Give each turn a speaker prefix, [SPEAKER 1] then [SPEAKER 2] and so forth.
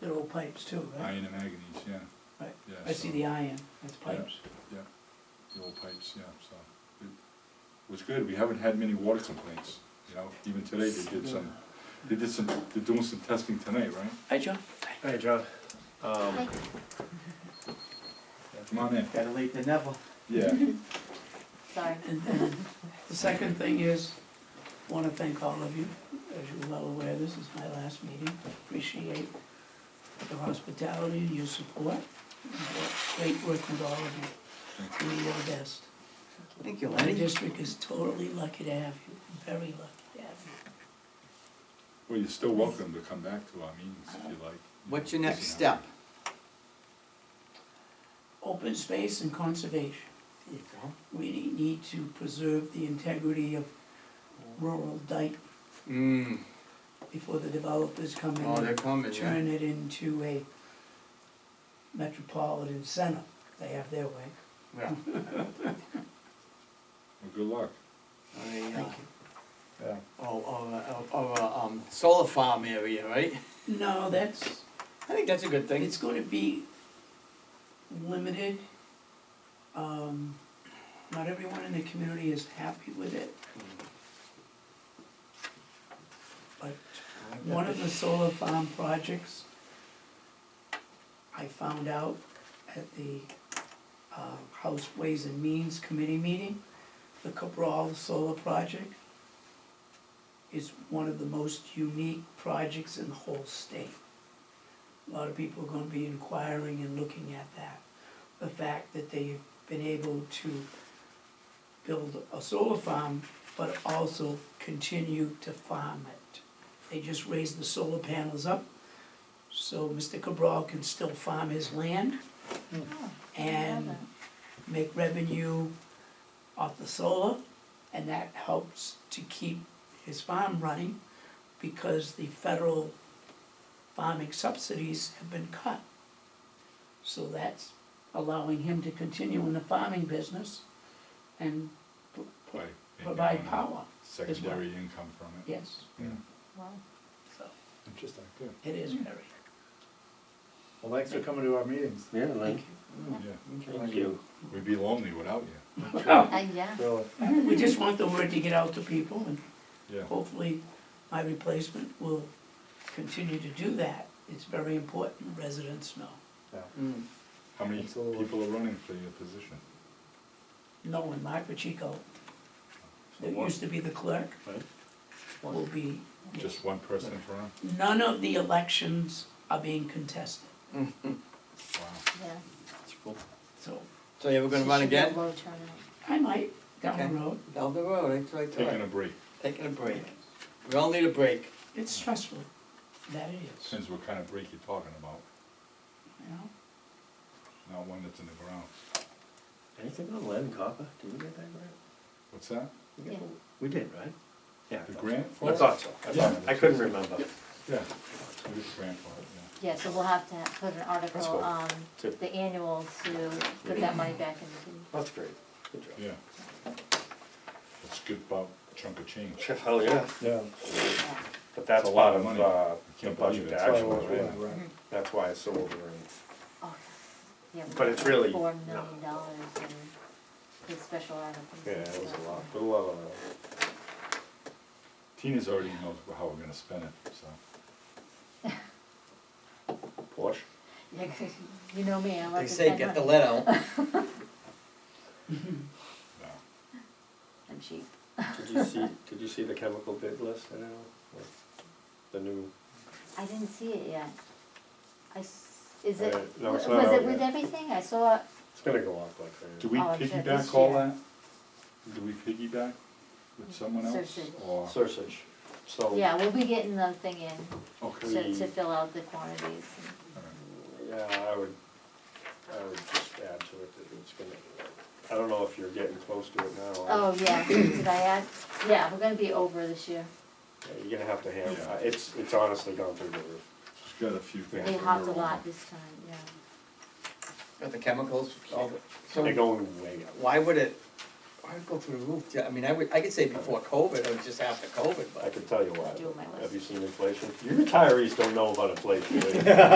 [SPEAKER 1] They're all pipes too, right?
[SPEAKER 2] Iron and manganese, yeah.
[SPEAKER 1] Right.
[SPEAKER 2] Yeah,
[SPEAKER 1] I see
[SPEAKER 2] so-
[SPEAKER 1] the iron, that's pipes.
[SPEAKER 2] the old pipes, yeah, so. it Was good, we haven't had many water complaints, you know, even today they did some, they did some, they're doing some testing tonight, right?
[SPEAKER 1] Hi, John.
[SPEAKER 3] Hey, John. Um,
[SPEAKER 2] Come on in.
[SPEAKER 4] Gotta leave the Neville.
[SPEAKER 2] Yeah,
[SPEAKER 5] Sorry.
[SPEAKER 1] And, and the second thing is, wanna thank all of you, as you're well aware, this is my last meeting. Appreciate your hospitality and your support. Great working with all of you, do your best.
[SPEAKER 4] Thank you,
[SPEAKER 1] My
[SPEAKER 4] Lenny.
[SPEAKER 1] district is totally lucky to have you, very lucky to have you.
[SPEAKER 2] well, you're still welcome to come back to our meetings if you like.
[SPEAKER 4] What's your next
[SPEAKER 2] Listen,
[SPEAKER 4] step?
[SPEAKER 1] Open space and conservation.
[SPEAKER 4] There you go.
[SPEAKER 1] We need to preserve the integrity of rural Dayton
[SPEAKER 3] mm,
[SPEAKER 1] before the developers come in.
[SPEAKER 3] oh, they're
[SPEAKER 1] and
[SPEAKER 3] coming, yeah.
[SPEAKER 1] Turn it into a metropolitan center, they have their way.
[SPEAKER 3] Yeah.
[SPEAKER 2] Well, good luck.
[SPEAKER 3] I mean, uh,
[SPEAKER 1] Thank
[SPEAKER 2] Yeah.
[SPEAKER 3] oh, oh, uh, oh, uh, um, solar farm area, right?
[SPEAKER 1] you. No, that's,
[SPEAKER 3] I think that's a good thing.
[SPEAKER 1] it's gonna be limited. Um, not everyone in the community is happy with it. But One of the solar farm projects, I found out at the uh, House Ways and Means Committee meeting, the Cabral Solar Project is one of the most unique projects in the whole state. A lot of people are gonna be inquiring and looking at that. The fact that they've been able to build a solar farm, but also continue to farm it. They just raised the solar panels up, so Mr. Cabral can still farm his land and make revenue off the solar, and that helps to keep his farm running because the federal farming subsidies have been cut. So that's allowing him to continue in the farming business and pro- pro-
[SPEAKER 2] By making
[SPEAKER 1] provide
[SPEAKER 2] a
[SPEAKER 1] power,
[SPEAKER 2] Secondary income from it.
[SPEAKER 1] yes, so
[SPEAKER 2] Interesting, good.
[SPEAKER 1] it is very,
[SPEAKER 6] Well, thanks for coming to our meetings.
[SPEAKER 4] Yeah,
[SPEAKER 1] thank you.
[SPEAKER 2] Yeah,
[SPEAKER 4] Thank you.
[SPEAKER 2] we'd be lonely without you.
[SPEAKER 5] Uh, yeah.
[SPEAKER 6] Really.
[SPEAKER 1] We just want the word to get out to people and
[SPEAKER 2] Yeah,
[SPEAKER 1] hopefully my replacement will continue to do that. It's very important residents know.
[SPEAKER 3] Mm.
[SPEAKER 2] how many
[SPEAKER 6] Absolutely.
[SPEAKER 2] people are running for your position?
[SPEAKER 1] No, in Microchico, that
[SPEAKER 3] one.
[SPEAKER 1] used to be the clerk,
[SPEAKER 3] Right.
[SPEAKER 1] will be,
[SPEAKER 2] Just one person for him?
[SPEAKER 1] none of the elections are being contested,
[SPEAKER 2] Wow.
[SPEAKER 5] Yeah.
[SPEAKER 3] That's cool.
[SPEAKER 1] so
[SPEAKER 3] So you ever gonna run
[SPEAKER 5] Should be a
[SPEAKER 3] again?
[SPEAKER 5] low turnout.
[SPEAKER 1] I might down
[SPEAKER 3] Okay.
[SPEAKER 1] the road.
[SPEAKER 3] Down the road, it's right
[SPEAKER 2] Taking
[SPEAKER 3] there.
[SPEAKER 2] a break,
[SPEAKER 3] Taking a break. We all need a break.
[SPEAKER 1] It's stressful, that it is,
[SPEAKER 2] since what kind of break you talking about,
[SPEAKER 1] you know?
[SPEAKER 2] not one that's in the ground.
[SPEAKER 7] Anything on lead and copper? Did we get that grant?
[SPEAKER 2] What's that?
[SPEAKER 7] We got
[SPEAKER 5] Yeah.
[SPEAKER 7] the- We did, right? Yeah. I
[SPEAKER 2] The
[SPEAKER 7] thought so.
[SPEAKER 2] grant for
[SPEAKER 7] I
[SPEAKER 2] it?
[SPEAKER 7] thought so. I
[SPEAKER 2] Yeah.
[SPEAKER 7] thought, I couldn't remember.
[SPEAKER 2] Yeah, it is grant for it, yeah.
[SPEAKER 5] Yeah, so we'll have to ha- put an
[SPEAKER 7] That's
[SPEAKER 5] article
[SPEAKER 7] cool.
[SPEAKER 5] on
[SPEAKER 7] To-
[SPEAKER 5] the annual to put that money back into
[SPEAKER 7] That's great. Good job.
[SPEAKER 2] Yeah. That's a good bu- chunk of change.
[SPEAKER 7] Sure, Hell, yeah.
[SPEAKER 6] Yeah.
[SPEAKER 5] the,
[SPEAKER 7] But
[SPEAKER 2] It's
[SPEAKER 7] that's
[SPEAKER 2] a lot
[SPEAKER 7] part
[SPEAKER 2] of
[SPEAKER 7] of,
[SPEAKER 2] money.
[SPEAKER 7] uh, the
[SPEAKER 2] Can't believe
[SPEAKER 7] budget
[SPEAKER 2] it.
[SPEAKER 7] to
[SPEAKER 6] That's
[SPEAKER 7] action,
[SPEAKER 6] why I was
[SPEAKER 7] right?
[SPEAKER 6] wondering.
[SPEAKER 7] That's why it's so overrun.
[SPEAKER 5] oh, yeah.
[SPEAKER 7] But it's really-
[SPEAKER 5] Four
[SPEAKER 7] no.
[SPEAKER 5] million dollars in the special articles.
[SPEAKER 7] Yeah,
[SPEAKER 5] and
[SPEAKER 7] it was a
[SPEAKER 5] stuff.
[SPEAKER 7] lot, uh, a lot of money.
[SPEAKER 2] Tina's already knows how we're gonna spend it, so.
[SPEAKER 7] Porsche?
[SPEAKER 5] Yeah, 'cause you know me, I like
[SPEAKER 3] They
[SPEAKER 5] to
[SPEAKER 3] say
[SPEAKER 5] spend
[SPEAKER 3] get the
[SPEAKER 5] money.
[SPEAKER 3] lead out.
[SPEAKER 2] no.
[SPEAKER 5] I'm cheap.
[SPEAKER 7] Did you see, did you see the chemical bid list at all? Like, The new,
[SPEAKER 5] I didn't see it yet. I, s- is it,
[SPEAKER 7] Uh, no, it's
[SPEAKER 5] was
[SPEAKER 7] not out
[SPEAKER 5] it with
[SPEAKER 7] yet.
[SPEAKER 5] everything? I saw, it-
[SPEAKER 7] it's gonna go up like crazy.
[SPEAKER 2] Do we
[SPEAKER 5] Oh, I'm sure
[SPEAKER 2] piggyback
[SPEAKER 5] this
[SPEAKER 2] all
[SPEAKER 5] year.
[SPEAKER 2] that? Do we piggyback with someone else
[SPEAKER 5] Search it.
[SPEAKER 2] or?
[SPEAKER 7] Sursage, so.
[SPEAKER 5] yeah, we'll be getting the thing in
[SPEAKER 2] Okay.
[SPEAKER 5] to,
[SPEAKER 7] We-
[SPEAKER 5] to fill out the quantities. and-
[SPEAKER 2] all right.
[SPEAKER 7] Yeah, I would, I would just add to it that it's gonna, I don't know if you're getting close to it now.
[SPEAKER 5] Oh, yeah, did I add? Yeah, we're gonna be over this year.
[SPEAKER 7] Yeah, You're gonna have to hand,
[SPEAKER 2] Yeah.
[SPEAKER 7] it's, it's honestly gone through the roof.
[SPEAKER 2] She's got a few things.
[SPEAKER 5] They
[SPEAKER 2] that
[SPEAKER 5] hopped
[SPEAKER 2] are
[SPEAKER 5] a
[SPEAKER 2] on.
[SPEAKER 5] lot this time, yeah.
[SPEAKER 3] Got the chemicals. all the- So
[SPEAKER 7] They're going way up.
[SPEAKER 3] why would it, why would it go through the roof? Yeah, I mean, I would, I could say before COVID or just after COVID, but.
[SPEAKER 7] I can tell you
[SPEAKER 5] Do my
[SPEAKER 7] why. Have you
[SPEAKER 5] list.
[SPEAKER 7] seen inflation? Your retirees don't know about inflation. do they?